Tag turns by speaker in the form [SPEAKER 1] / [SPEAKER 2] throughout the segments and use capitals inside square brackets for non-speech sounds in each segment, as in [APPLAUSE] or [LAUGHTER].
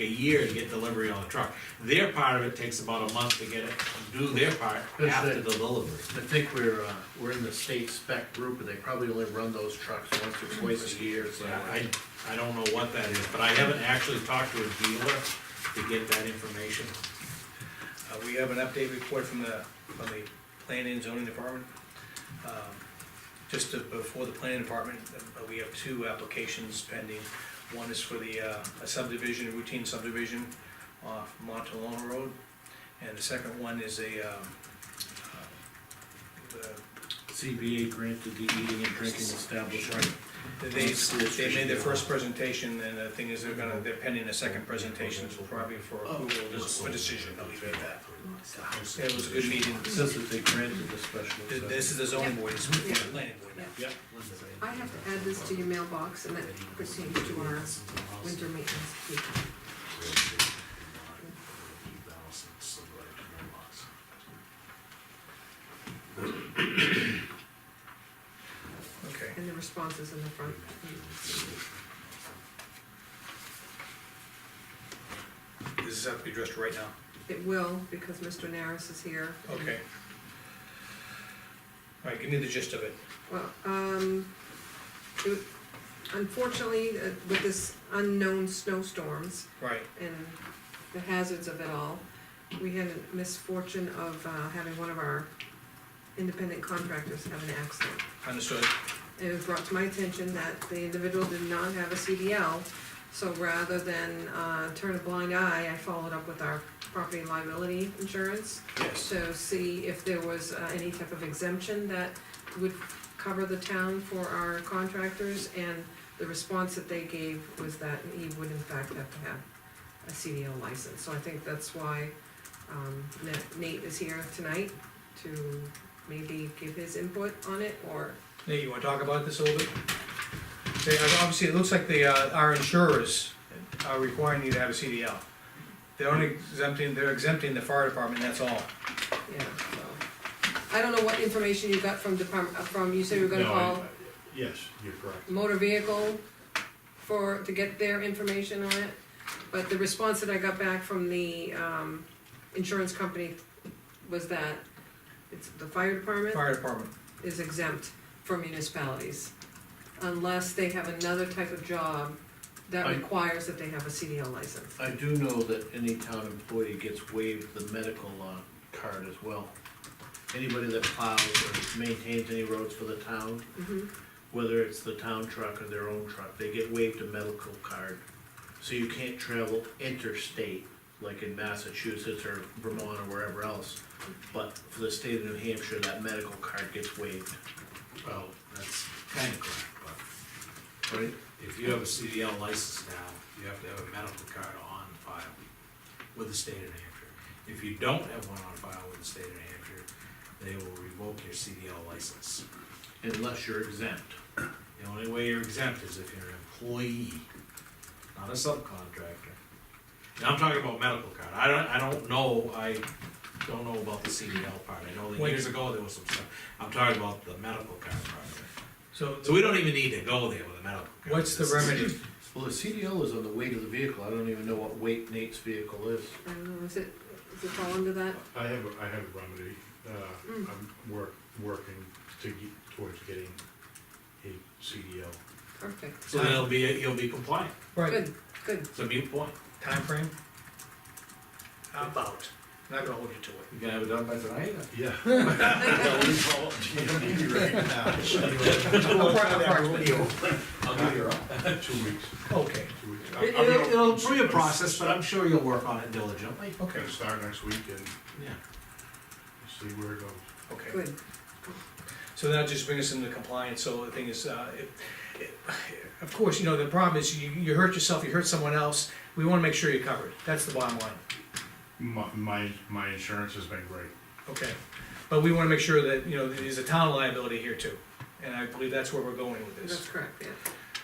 [SPEAKER 1] a year to get delivery on the truck. Their part of it takes about a month to get it, do their part
[SPEAKER 2] [LAUGHS] That's
[SPEAKER 1] after the
[SPEAKER 2] it.
[SPEAKER 1] delivery.
[SPEAKER 2] I think we're, uh, we're in the state spec group, and they probably only run those trucks once or twice a year, so.
[SPEAKER 1] So I, I don't know what that is, but I haven't actually talked to a dealer to get that information.
[SPEAKER 3] Uh, we have an update report from the, from the planning and zoning department. Um, Just to- before the planning department, uh, we have two applications pending. One is for the uh, a subdivision, routine subdivision off Montalona Road. And the second one is a, um, uh,
[SPEAKER 2] CBA granted the eating and drinking establishment.
[SPEAKER 3] the- they, they made their first presentation, and the thing is, they're gonna, they're pending a second presentation, probably for approval, Oh, for decision, I'll leave it at that. It was a good meeting.
[SPEAKER 2] It says that they granted the special
[SPEAKER 3] Th-
[SPEAKER 2] exception.
[SPEAKER 3] This is the zoning board, it's with the planning board now.
[SPEAKER 2] Yeah.
[SPEAKER 4] I have to add this to your mailbox, and it pertains to our winter maintenance. people.
[SPEAKER 3] Okay,
[SPEAKER 4] And the responses in the front.
[SPEAKER 3] this is have to be addressed right now,
[SPEAKER 4] It will, because Mr. Naris is here.
[SPEAKER 3] okay. All right, give me the gist of it.
[SPEAKER 4] Well, um, it- unfortunately, uh, with this unknown snowstorms,
[SPEAKER 3] Right,
[SPEAKER 4] and the hazards of it all. We had a misfortune of uh, having one of our independent contractors have an accident.
[SPEAKER 3] understood,
[SPEAKER 4] It was brought to my attention that the individual did not have a CDL, so rather than uh, turn a blind eye, I followed up with our property and liability insurance
[SPEAKER 3] yes,
[SPEAKER 4] to see if there was uh, any type of exemption that would cover the town for our contractors, and the response that they gave was that he would in fact have to have a CDL license, so I think that's why um, Nat- Nate is here tonight to maybe give his input on it, or,
[SPEAKER 3] Nate, you wanna talk about this a little bit? They, uh, obviously, it looks like the, uh, our insurers are requiring you to have a CDL. They're only exempting, they're exempting the fire department, that's all.
[SPEAKER 4] yeah, so. I don't know what information you got from department, from, you said you were gonna
[SPEAKER 5] No, I-
[SPEAKER 4] call
[SPEAKER 5] Yes, you're correct.
[SPEAKER 4] motor vehicle for, to get their information on it. But the response that I got back from the, um, insurance company was that it's, the fire department
[SPEAKER 3] Fire department,
[SPEAKER 4] is exempt for municipalities. Unless they have another type of job that
[SPEAKER 2] I-
[SPEAKER 4] requires that they have a CDL license.
[SPEAKER 2] I do know that any town employee gets waived the medical, uh, card as well. Anybody that plows or maintains any roads for the town,
[SPEAKER 4] Mhm.
[SPEAKER 2] whether it's the town truck or their own truck, they get waived a medical card. So you can't travel interstate, like in Massachusetts or Vermont or wherever else. But for the state of New Hampshire, that medical card gets waived,
[SPEAKER 5] Well, that's kind of correct,
[SPEAKER 2] right?
[SPEAKER 5] but if you have a CDL license now, you have to have a medical card on file with the state of New Hampshire. If you don't have one on file with the state of New Hampshire, they will revoke your CDL license.
[SPEAKER 2] Unless you're exempt.
[SPEAKER 5] The only way you're exempt is if you're an employee, not a subcontractor. And I'm talking about medical card, I don't, I don't know, I don't know about the CDL part, I know that
[SPEAKER 3] Wait.
[SPEAKER 5] years ago there was some stuff. I'm talking about the medical card part of it.
[SPEAKER 3] so
[SPEAKER 5] So we don't even need to go there with a medical card.
[SPEAKER 3] what's the remedy?
[SPEAKER 2] Well, the CDL is on the weight of the vehicle, I don't even know what weight Nate's vehicle is.
[SPEAKER 4] I don't know, is it, does it fall under that?
[SPEAKER 6] I have, a- I have a remedy, uh,
[SPEAKER 4] Mm.
[SPEAKER 6] I'm work, working to get, towards getting a CDL.
[SPEAKER 4] Perfect,
[SPEAKER 5] So then it'll be, you'll be compliant,
[SPEAKER 3] Right,
[SPEAKER 4] good,
[SPEAKER 5] [LAUGHS]
[SPEAKER 4] good.
[SPEAKER 5] it's a mute point,
[SPEAKER 3] Time frame? About, not gonna hold you to it.
[SPEAKER 5] you can have it done by [LAUGHS] tonight. or-
[SPEAKER 6] [LAUGHS] Yeah.
[SPEAKER 5] I'll give you your,
[SPEAKER 6] Two weeks,
[SPEAKER 3] Okay,
[SPEAKER 6] two weeks. I'm- I'm gonna-
[SPEAKER 5] it'll, it'll be a process, but I'm sure you'll work on it diligently.
[SPEAKER 6] I'm
[SPEAKER 3] okay,
[SPEAKER 6] gonna start next week and
[SPEAKER 5] Yeah.
[SPEAKER 6] see where it goes.
[SPEAKER 3] okay.
[SPEAKER 4] Good,
[SPEAKER 3] So that'll just bring us into compliance, so the thing is, uh, it- it- of course, you know, the problem is, you, you hurt yourself, you hurt someone else, we wanna make sure you're covered, that's the bottom line,
[SPEAKER 6] My, my, my insurance has been great.
[SPEAKER 3] okay? But we wanna make sure that, you know, there's a town liability here too, and I believe that's where we're going with
[SPEAKER 4] that's
[SPEAKER 3] this.
[SPEAKER 4] correct, yeah.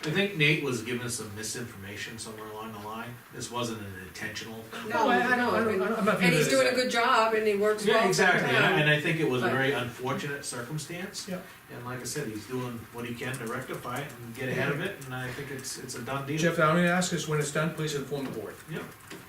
[SPEAKER 5] I think Nate was giving us some misinformation somewhere along the line, this wasn't an intentional thing.
[SPEAKER 4] No,
[SPEAKER 3] I- I
[SPEAKER 4] no, I mean,
[SPEAKER 3] I'm not viewing
[SPEAKER 4] And
[SPEAKER 3] it
[SPEAKER 4] he's
[SPEAKER 3] as
[SPEAKER 4] doing
[SPEAKER 3] that.
[SPEAKER 4] a good job and he works well
[SPEAKER 5] Yeah,
[SPEAKER 4] for the
[SPEAKER 5] exactly, and I,
[SPEAKER 4] town.
[SPEAKER 5] and I think it was a
[SPEAKER 4] But-
[SPEAKER 5] very unfortunate circumstance.
[SPEAKER 3] Yeah.
[SPEAKER 5] And like I said, he's doing what he can to rectify it and get ahead of it, and I think it's, it's a done deal.
[SPEAKER 3] Jeff, I'm gonna ask us when it's done, please inform the board.
[SPEAKER 5] Yeah.